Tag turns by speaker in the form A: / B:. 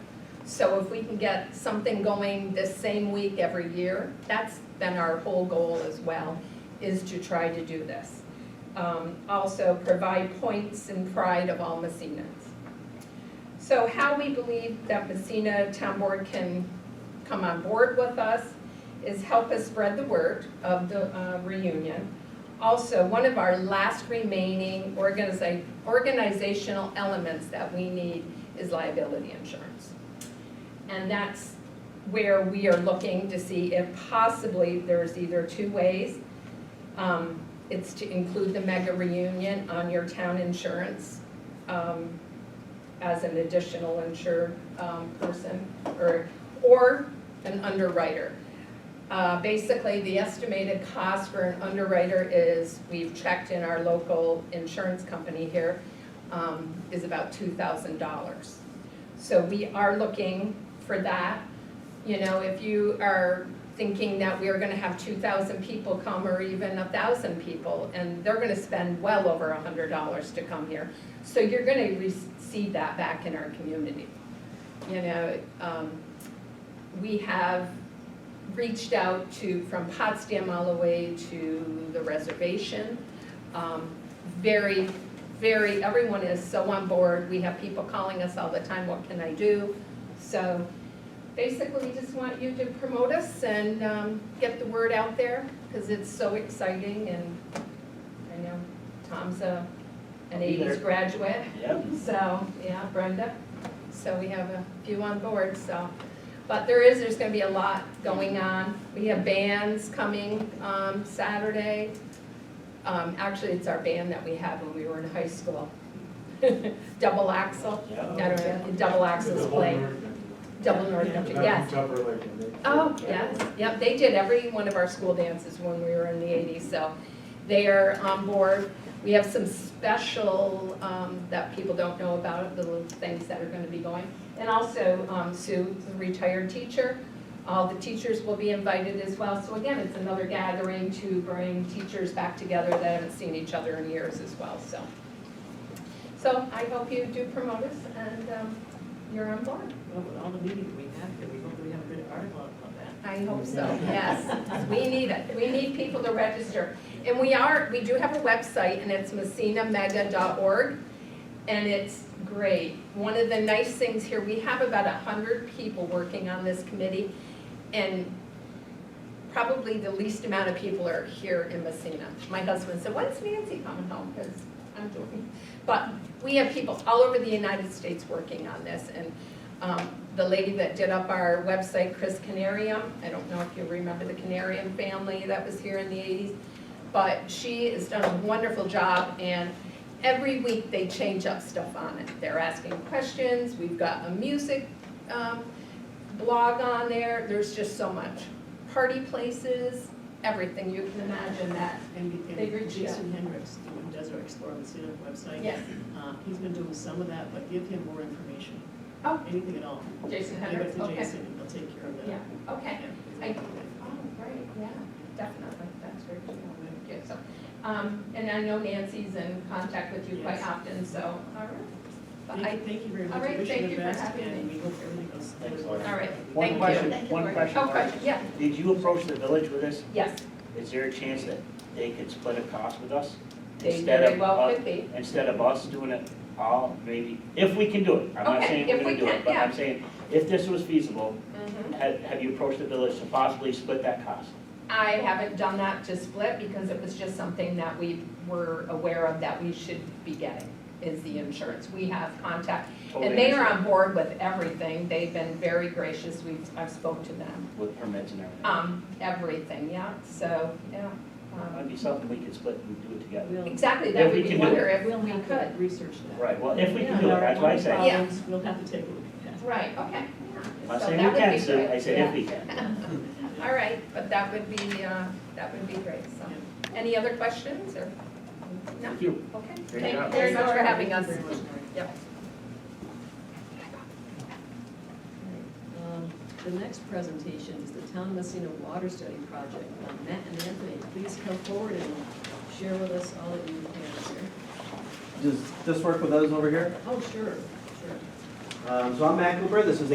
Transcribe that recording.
A: So if we can get something going this same week every year, that's been our whole goal as well, is to try to do this. Um, Also, provide points and pride of all Messinas. So how we believe that Messina Town Board can come on board with us is help us spread the word of the uh, reunion. Also, one of our last remaining organiza- organizational elements that we need is liability insurance. And that's where we are looking to see if possibly there's either two ways. Um, It's to include the mega reunion on your town insurance um, as an additional insured um, person or, or an underwriter. Uh, Basically, the estimated cost for an underwriter is, we've checked in our local insurance company here, um, is about two thousand dollars. So we are looking for that. You know, if you are thinking that we are gonna have two thousand people come or even a thousand people, and they're gonna spend well over a hundred dollars to come here. So you're gonna receive that back in our community. You know, um, we have reached out to, from Potsdam all the way to the reservation. Um, Very, very, everyone is so on board. We have people calling us all the time, what can I do? So basically, we just want you to promote us and um, get the word out there because it's so exciting and I know Tom's a, an
B: I'll be there.
A: eighties graduate.
B: Yep.
A: So, yeah, Brenda, so we have a few on board, so, but there is, there's gonna be a lot going on. We have bands coming, um, Saturday. Um, actually, it's our band that we had when we were in high school. Double Axel, I
B: Yeah.
A: don't know, double Axel's play, Double North Country, yes. Oh, yes, yep, they did every one of our school dances when we were in the eighties, so they are on board. We have some special, um, that people don't know about, the little things that are gonna be going. And also, um, Sue, the retired teacher, all the teachers will be invited as well. So again, it's another gathering to bring teachers back together that haven't seen each other in years as well, so. So I hope you do promote us and, um, you're on board.
C: Well, with all the meetings we have here, we hopefully have a good article about that.
A: I hope so, yes. We need it, we need people to register. And we are, we do have a website, and it's messinamega.org, and it's great. One of the nice things here, we have about 100 people working on this committee, and probably the least amount of people are here in Messina. My husband said, when's Nancy coming home? Because I'm doing, but we have people all over the United States working on this, and um, the lady that did up our website, Chris Canarium, I don't know if you remember the Canarium family that was here in the eighties, but she has done a wonderful job, and every week they change up stuff on it. They're asking questions, we've got a music um, blog on there, there's just so much. Party places, everything you can imagine that,
C: And and
A: They reach
C: Jason Hendricks, the one who does our Explore the City website.
A: yes,
C: uh, He's been doing some of that, but give him more information.
A: Oh.
C: Anything at all.
A: Jason
C: Give it
A: Hendricks,
C: to
A: okay.
C: Jason, and he'll take care of that.
A: Yeah, okay.
C: Yeah.
A: I- Oh, great, yeah, definitely, that's very good, good, so, um, and I know Nancy's in contact with you quite
C: Yes.
A: often, so, all right. But
C: Thank
A: I,
C: you, thank you very
A: all
C: much.
A: right,
C: Wish
A: thank
C: the
A: you for
C: best,
A: having
C: and
A: me.
C: we hope everything goes.
B: Thanks, Laura.
A: all right, thank
B: One
A: you.
B: question, one question.
A: Oh, question, yeah,
B: Did you approach the village with this?
A: yes,
B: Is there a chance that they could split a cost with us?
A: they
B: Instead
A: very
B: of uh,
A: well
B: us-
A: could be,
B: Instead of us doing it all, maybe, if we can do it. I'm not
A: Okay,
B: saying
A: if
B: we're
A: we
B: gonna do
A: can,
B: it, but
A: yeah.
B: I'm saying, if this was feasible,
A: Mhm.
B: have, have you approached the village to possibly split that cost?
A: I haven't done that to split because it was just something that we were aware of that we should be getting, is the insurance, we have contact. And
B: Totally
A: they are
B: understand.
A: on board with everything, they've been very gracious, we've, I've spoke to them.
B: With permits and everything.
A: Um, everything, yeah, so, yeah. um,
B: That'd be something we could split and do it together.
C: We'll-
A: Exactly, that
B: If we
A: would be
B: can do it.
A: wonder if
C: We'll
A: we
C: have to
A: could.
C: research that.
B: Right, well, if we
C: Yeah,
B: can do it,
C: there are
B: that's what I
C: more
B: say.
A: Yeah.
C: problems. We'll have to take a look at that.
A: Right, okay.
B: I'm
A: yeah.
B: not
A: So
B: saying
A: that
B: we
A: would
B: can,
A: be
B: Sue,
A: great,
B: I said
A: yeah.
B: if we can.
A: All right, but that would be, uh, that would be great, so. Any other questions or? No?
B: Thank you.
A: Okay.
B: Great
A: Thank you
B: job.
A: very much for having us.
C: Thank you very much, Laura.
A: Yep.
C: Um, The next presentation is the Town of Messina Water Study Project. Um, Matt and Anthony, please come forward and share with us all that you can, sir.
D: Does this work with those over here?
C: Oh, sure, sure.
D: Um, So I'm Matt Cooper, this is